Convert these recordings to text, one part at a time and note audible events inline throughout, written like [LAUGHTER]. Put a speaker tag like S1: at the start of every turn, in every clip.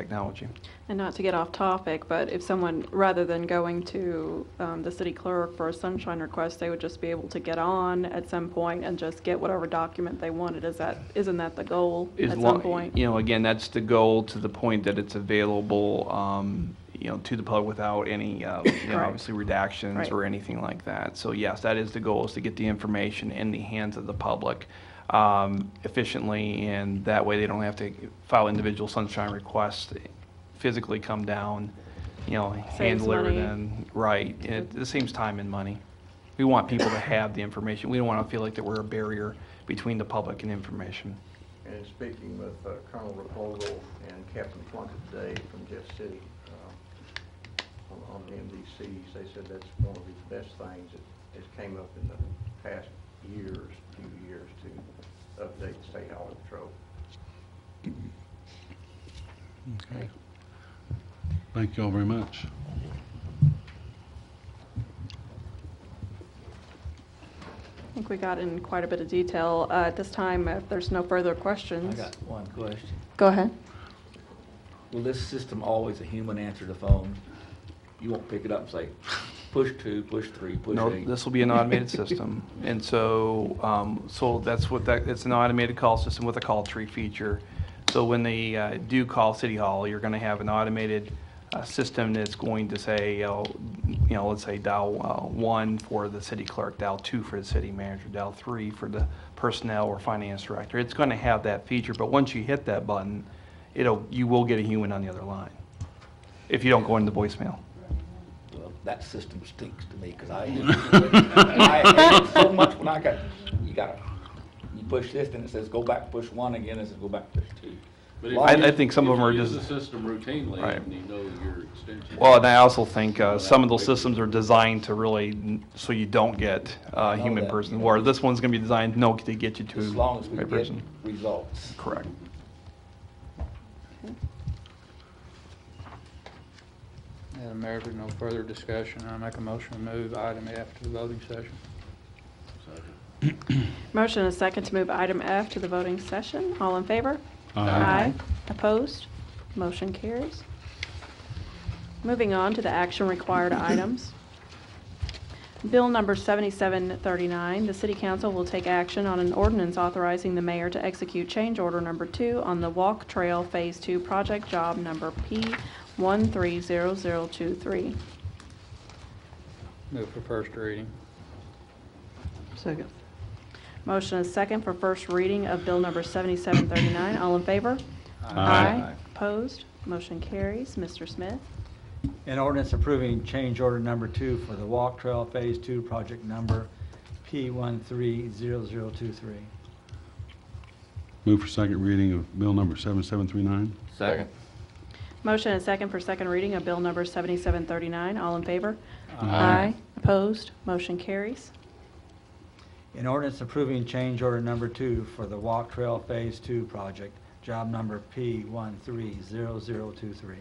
S1: technology.
S2: And not to get off topic, but if someone, rather than going to um, the city clerk for a sunshine request, they would just be able to get on at some point and just get whatever document they wanted, is that, isn't that the goal
S1: As
S2: at
S1: long-
S2: some point?
S1: You know, again, that's the goal to the point that it's available, um, you know, to the public without any, uh, you know,
S2: Correct.
S1: obviously redactions
S2: Right.
S1: or anything like that. So yes, that is the goal, is to get the information in the hands of the public um, efficiently, and that way they don't have to file individual sunshine requests, physically come down, you know, hand
S2: Saves
S1: deliver
S2: money.
S1: them. Right, it it saves time and money. We want people to have the information. We don't want to feel like that we're a barrier between the public and information.
S3: And speaking with uh, Colonel Repogal and Captain Plunkett today from Jeff City uh, on- on the MDCs, they said that's one of the best things that has came up in the past years, few years, to update the state highway patrol.
S4: Okay. Thank you all very much.
S2: I think we got in quite a bit of detail. Uh, At this time, if there's no further
S5: I
S2: questions.
S5: got one question.
S2: Go ahead.
S5: Will this system always a human answer the phone? You won't pick it up and say, push two, push three, push
S1: No,
S5: eight?
S1: this will be an automated system. And so, um, so that's what that, it's an automated call system with a call tree feature. So when they uh, do call City Hall, you're going to have an automated uh, system that's going to say, uh, you know, let's say dial uh, one for the city clerk, dial two for the city manager, dial three for the personnel or finance director. It's going to have that feature, but once you hit that button, it'll, you will get a human on the other line if you don't go into voicemail.
S5: Well, That system stinks to me, because I, I hate it so much when I got, you got, you push this, then it says, go back, push one again, it says, go back, push two.
S6: But if
S5: Well, I-
S6: you
S1: I
S6: use-
S1: think some
S6: if
S1: of 'em
S6: you
S1: are
S6: use
S1: just-
S6: the system routinely,
S1: Right.
S6: and you know your extension.
S1: Well, and I also think uh, some of those systems are designed to really, n- so you don't get a
S5: know
S1: human
S5: that.
S1: person, where this one's gonna be designed, no, to get you to.
S5: As long as we
S1: a
S5: get
S1: person.
S5: results.
S1: Correct.
S7: Madam Mayor, if there's no further discussion, I make a motion to move item F to the voting session.
S2: Motion and a second to move item F to the voting session. All in favor?
S4: Uh, Aye.
S2: Opposed? Motion carries. Moving on to the action
S4: [CLEARS THROAT]
S2: required items. Bill number 7739, the City Council will take action on an ordinance authorizing the mayor to execute change order number two on the Walk Trail Phase Two project job number P130023.
S7: Move for first reading.
S2: Second. Motion is second for first reading of bill number 7739. All in favor?
S4: Aye.
S2: Opposed? Motion carries. Mr. Smith?
S8: An ordinance approving change order number two for the Walk Trail Phase Two, project number P one three zero zero two three.
S4: Move for second reading of bill number 7739.
S5: Second.
S2: Motion is second for second reading of bill number 7739. All in favor?
S4: Aye.
S2: Opposed? Motion carries.
S8: An ordinance approving change order number two for the Walk Trail Phase Two project, job number P one three zero zero two three.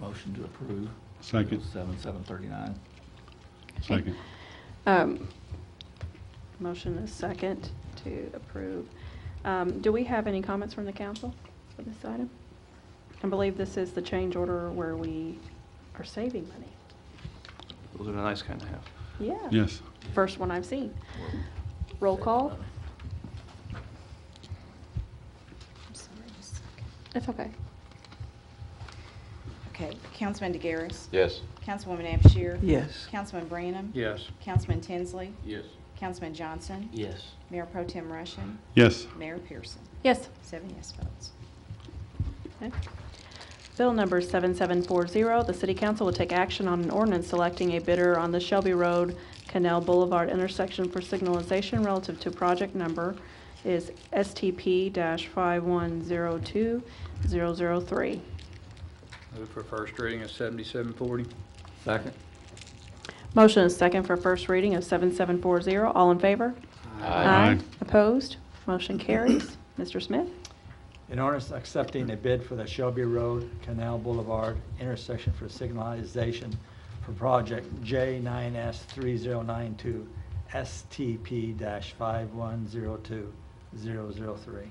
S5: Motion to approve.
S4: Second.
S5: Seven, seven thirty-nine.
S4: Second.
S2: Um, Motion is second to approve. Um, Do we have any comments from the council for this item? I believe this is the change order where we are saving money.
S1: Those are the nice kind to have.
S2: Yeah.
S4: Yes.
S2: First one I've seen. Roll call?
S9: I'm sorry, just a second.
S2: It's okay.
S9: Okay, Councilman DeGaris.
S6: Yes.
S9: Councilwoman Abshir.
S8: Yes.
S9: Councilman Branham.
S7: Yes.
S9: Councilman Tinsley.
S6: Yes.
S9: Councilman Johnson.
S5: Yes.
S9: Mayor Pro Tem Russian.
S4: Yes.
S9: Mayor Pearson.
S2: Yes.
S9: Seven yes votes.
S2: Okay. Bill number 7740, the city council will take action on an ordinance selecting a bidder on the Shelby Road Canal Boulevard intersection for signalization relative to project number is STP-5102003.
S7: Move for first reading of 7740.
S5: Second.
S2: Motion is second for first reading of 7740. All in favor?
S4: Aye.
S2: Opposed? Motion carries. Mr. Smith?
S8: An ordinance accepting a bid for the Shelby Road Canal Boulevard intersection for signalization for project J9S3092, STP-5102003.